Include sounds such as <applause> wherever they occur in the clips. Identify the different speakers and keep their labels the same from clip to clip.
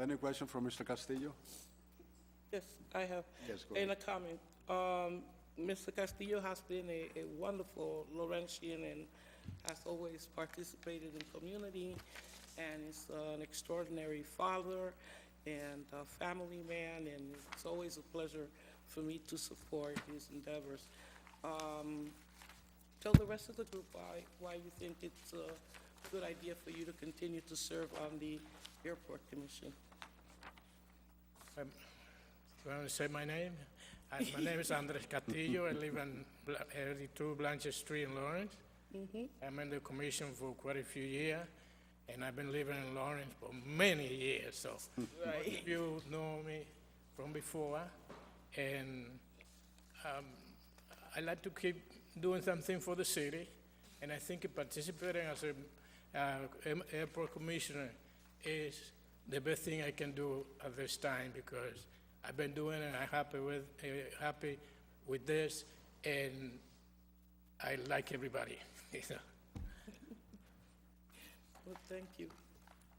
Speaker 1: Any question from Mr. Castillo?
Speaker 2: Yes, I have.
Speaker 1: Yes, go
Speaker 2: And a comment. Um, Mr. Castillo has been a, a wonderful Laurentian and has always participated in community, and is an extraordinary father and a family man, and it's always a pleasure for me to support his endeavors. Um, tell the rest of the group why, why you think it's a good idea for you to continue to serve on the airport commission.
Speaker 3: You want to say my name? Uh, My name is Andres Castillo. I live on Bla- 82 Blanchard Street in Lawrence. I'm in the commission for quite a few years, and I've been living in Lawrence for many years, so. most of You know me from before, and um, I like to keep doing something for the city, and I think participating as a uh, am- airport commissioner is the best thing I can do at this time, because I've been doing it, and I'm happy with, eh, happy with this, and I like everybody, <laughs> you know.
Speaker 2: Well, thank you.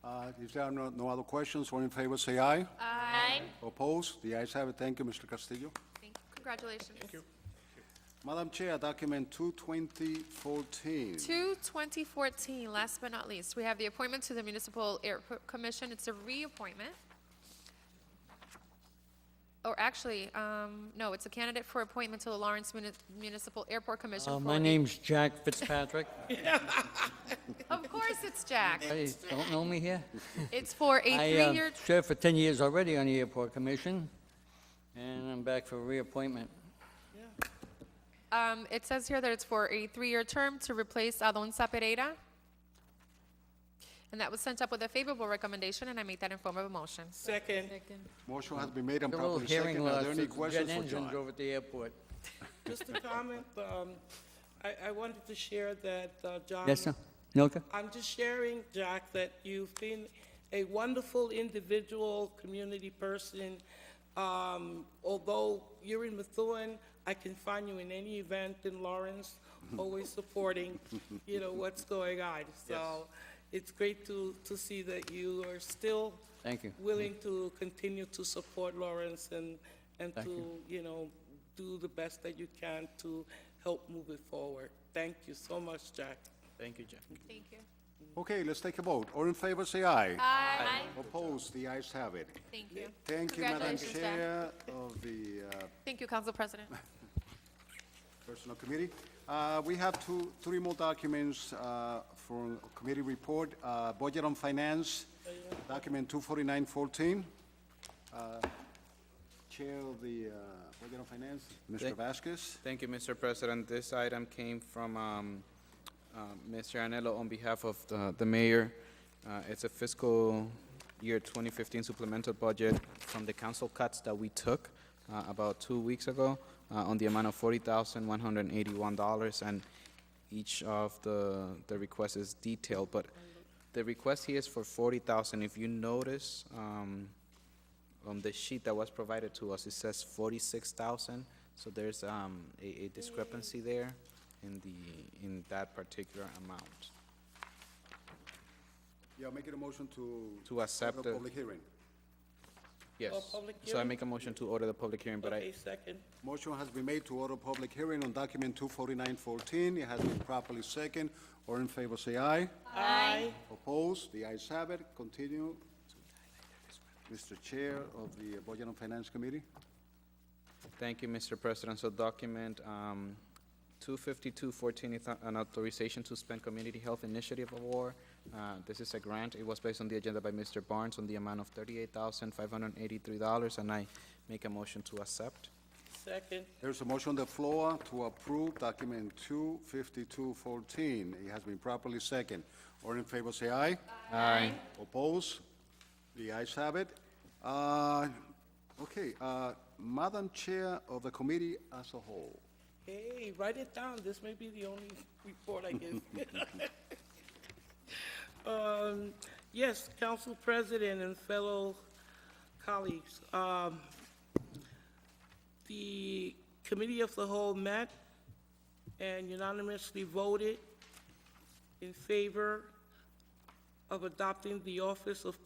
Speaker 1: Uh, If there are no no other questions, all in favor, say aye.
Speaker 4: Aye.
Speaker 1: Opposed? The ayes have it. Thank you, Mr. Castillo.
Speaker 4: Thank- Congratulations.
Speaker 1: Madam Chair, document 22014.
Speaker 4: To 2014, last but not least, we have the appointment to the Municipal Airport Commission. It's a reappointment. Or actually, um, no, it's a candidate for appointment to the Lawrence Muni- Municipal Airport Commission.
Speaker 5: Uh,
Speaker 4: for
Speaker 5: My
Speaker 4: a-
Speaker 5: name's Jack Fitzpatrick.
Speaker 4: <laughs> Of course, it's Jack.
Speaker 5: Hey, Don't know me here?
Speaker 4: It's for a
Speaker 5: I uh,
Speaker 4: three-year,
Speaker 5: served for 10 years already on the Airport Commission, and I'm back for reappointment.
Speaker 4: um, it says here that it's for a three-year term to replace Alonso Pereira. And that was sent up with a favorable recommendation, and I make that in form of a motion.
Speaker 2: Second.
Speaker 1: Motion has been made and
Speaker 5: A little
Speaker 1: properly seconded.
Speaker 5: hearing
Speaker 1: Are
Speaker 5: loss,
Speaker 1: there any
Speaker 5: it's jet
Speaker 1: questions for
Speaker 5: engines
Speaker 1: John?
Speaker 5: over at the airport.
Speaker 2: Just a comment, um, I, I wanted to share that, uh,
Speaker 4: Um,
Speaker 2: John.
Speaker 5: Yes, sir? Noka?
Speaker 2: I'm just sharing, Jack, that you've been a wonderful individual, community person. Um, although you're in Methuen, I can find you in any event in Lawrence, always
Speaker 5: <laughs>
Speaker 2: supporting, you know, what's going on. So it's great to, to see that you are still
Speaker 5: Thank you.
Speaker 2: willing to continue to support Lawrence and, and
Speaker 5: Thank
Speaker 2: to, you know, do the best that you can to help move it forward. Thank you so much, Jack.
Speaker 3: Thank you, Jack.
Speaker 4: Thank you.
Speaker 1: Okay, let's take a vote. All in favor, say aye.
Speaker 4: Aye.
Speaker 1: Opposed? The ayes have it.
Speaker 4: Thank you.
Speaker 1: Thank you, Madam
Speaker 4: Congratulations, Jack.
Speaker 1: Chair of the uh,
Speaker 4: Thank you, Council President.
Speaker 1: Personnel Committee. Uh, We have two, three more documents uh, for committee report, Uh, Budget on Finance, document 24914. Uh, Chair of the uh, Budget on Finance, Mr.
Speaker 6: Thank-
Speaker 1: Vasquez.
Speaker 6: Thank you, Mr. President. This item came from um, uh, Mr. Anello on behalf of the the mayor. Uh, It's a fiscal year 2015 supplemental budget from the council cuts that we took uh, about two weeks ago uh, on the amount of $40,181. And each of the the requests is detailed, but the request here is for $40,000. If you notice, um, on um, the sheet that was provided to us, it says forty-six thousand, so there's, um, a, a discrepancy there in the, in that particular amount.
Speaker 1: Yeah, make it a motion to...
Speaker 6: To accept
Speaker 1: open a
Speaker 6: the-
Speaker 1: Public hearing.
Speaker 6: Yes,
Speaker 2: public
Speaker 6: so I
Speaker 2: hearing?
Speaker 6: make a motion to order the public hearing, but I,
Speaker 2: Okay, second.
Speaker 1: Motion has been made to order public hearing on document 24914. It has been properly second. All in favor, say aye.
Speaker 2: Aye.
Speaker 1: Opposed? The ayes have it. Continue. Mr. Chair of the Budget and Finance Committee.
Speaker 6: thank you, Mr. President, so document, um, two fifty-two fourteen is a- an authorization to spend Community Health Initiative Award. Uh, this is a grant, it was placed on the agenda by Mr. Barnes on the amount of thirty-eight thousand, five hundred and eighty-three dollars, and I make a motion to accept.
Speaker 2: Second,
Speaker 1: There's a motion on the floor to approve document 25214. It has been properly second. All in favor, say aye.
Speaker 6: Aye.
Speaker 1: Opposed? The ayes have it. Uh, Okay, uh, Madam Chair of the committee as a whole.
Speaker 2: hey, write it down, this may be the only report I give. <laughs> Um, Yes, Council President and fellow colleagues, um, the Committee of the Whole met and unanimously voted in favor of adopting the Office of